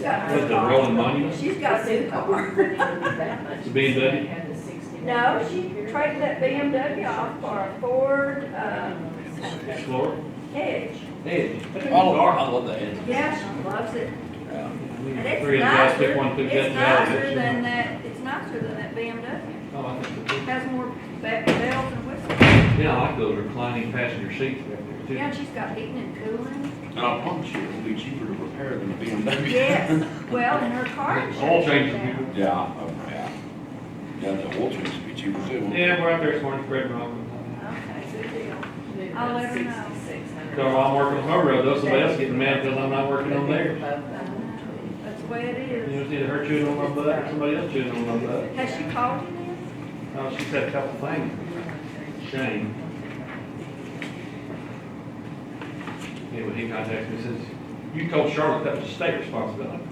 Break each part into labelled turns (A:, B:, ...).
A: got.
B: With the rolling money,
A: She's got a new car.
B: the BMW?
A: No, she traded that BMW off for a Ford, um,
B: Explorer?
A: Edge.
B: Hey.
C: All of our, I love that.
A: Yeah, she loves it. And it's
B: Three of us, pick
A: nicer,
B: one, pick that
A: it's
B: and that.
A: nicer than that, it's nicer than that BMW.
B: Oh, I think so.
A: It Has more be- bells and whistles.
B: Yeah, I like those reclining passenger seats back
A: Yeah,
B: there
A: and she's got heating and cooling.
C: And I promise you, it'll be cheaper to repair than a BMW.
A: Yes, well, and her car.
B: too. All changes.
A: insurance now.
B: people.
C: Yeah, I- oh, yeah. Yeah, the oil change will be cheaper too. won't it?
B: Yeah, we're out there, it's morning, spread rock.
A: Okay, good deal.
D: I'll let her know.
B: So I'm working on her road, though somebody else getting mad because I'm not working on theirs.
A: That's the way it
B: You
A: is.
B: know, it's either her chewing on my butt or somebody else chewing on my butt.
A: Has she called you then?
B: Oh, she said a couple things. Shame. Yeah, when he contacted me, says, you told Charlotte that was state responsibility.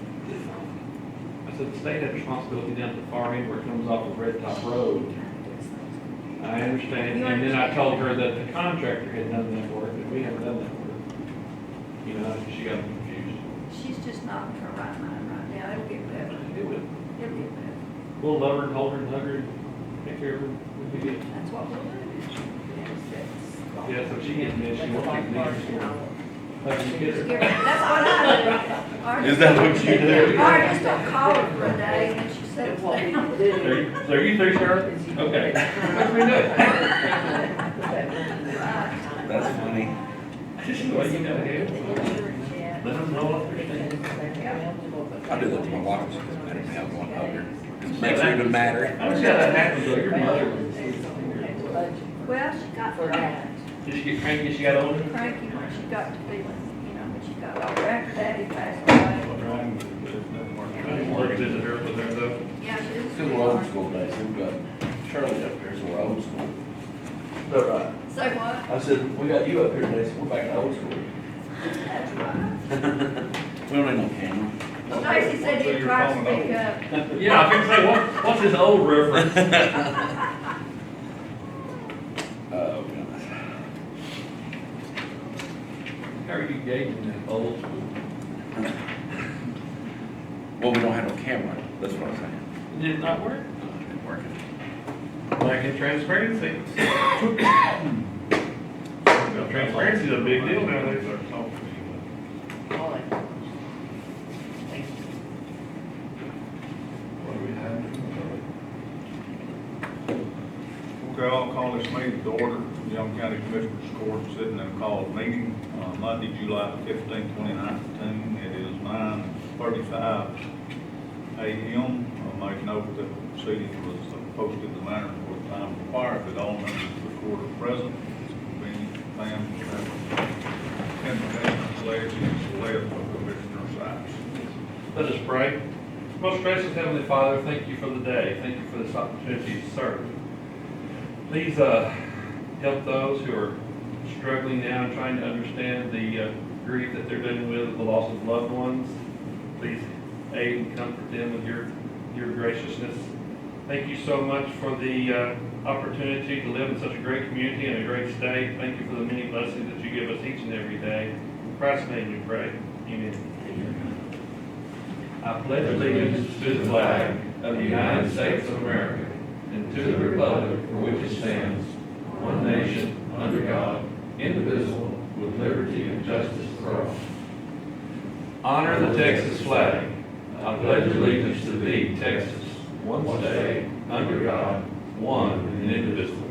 B: I said, the state had responsibility down to the far end where it comes off of Red Top Road. I understand, and then I told her that the contractor had done that work, that we haven't done that work. You know, she got confused.
A: She's just not in her right mind right now. It'll get better.
B: It would,
A: It'll get better.
B: we'll love her and hold her and hug her and take care of her. We'll be good.
A: That's what we'll do.
B: Yeah, so she gets mad, she won't take me. Hug and kiss her.
A: That's what I do.
C: Is that what you
A: Or
C: do?
A: I just don't call her for a day and then she settles down.
B: So you- so you three, Charlotte? Okay. What we
C: That's funny.
B: do? Well, you know, hey, let them know what they're saying.
C: I do that to my wife, she doesn't matter now, I'm going over. It makes her even
B: I
C: madder.
B: don't see how that happens, though, your mother. was-
A: Well, she got
B: Did she get cranky, as she got older?
A: cranky when she got to be, you know, when she got older. After daddy passed away.
B: I didn't work, visit her with her, though.
A: Yeah, she was.
C: Still old school days, we've got Shirley up here, so we're old school. uh,
E: No, right.
A: Say what?
E: I said, we got you up here today, so we're back to old school.
A: That's right.
C: We don't need no camera.
A: Stacy said you tried to speak up.
B: Yeah, I can say, what, what's this old reference?
C: Oh, goodness.
B: How are you gauging that old school?
C: Well, we don't have no camera, that's what I'm saying.
B: Did it not work?
C: It's working.
B: Lack of transparency. Transparency's a big deal nowadays.
F: What do we have? Okay, I'll call this meeting to order, Young County Commissioners Court, sitting in a called meeting, uh, Monday, July fifteenth, twenty nineteen, it is nine thirty-five AM. I make note that the proceeding was posted in the manner for the time required, that all members of the court are present. It's convenient, Pam, Commissioner Lacy, and Celeste, Commissioner Sykes.
B: Let us pray. Most gracious Heavenly Father, thank you for the day. Thank you for this opportunity to serve. Please uh, help those who are struggling now and trying to understand the uh, grief that they're dealing with, the loss of loved ones. Please aid and comfort them with your, your graciousness. Thank you so much for the uh, opportunity to live in such a great community and a great state. Thank you for the many blessings that you give us each and every day. In Christ's name we pray. Amen. I pledge allegiance to the flag of the United States of America and to the republic for which it stands, one nation, under God, indivisible, with liberty and justice for all. Honor the Texas flag. I pledge allegiance to thee, Texas, one state, under God, one and indivisible.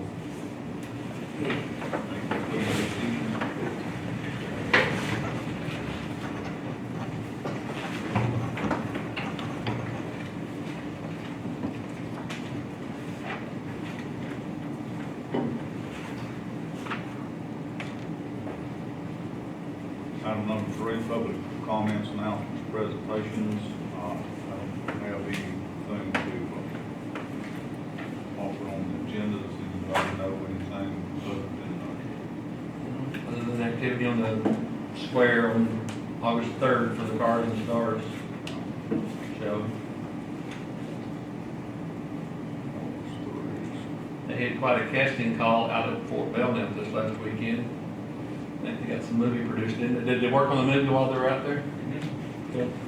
F: Item number three, public comments, announcements, presentations. Uh, I don't have anything to uh, offer on the agenda, does anybody know anything other than, uh,
B: Other than activity on the square on August third for the Cars and Stars show.
F: uh, stories?
B: They had quite a casting call out at Fort Belknap this last weekend. I think they got some movie produced in. Did they work on the movie while they were out there? Good.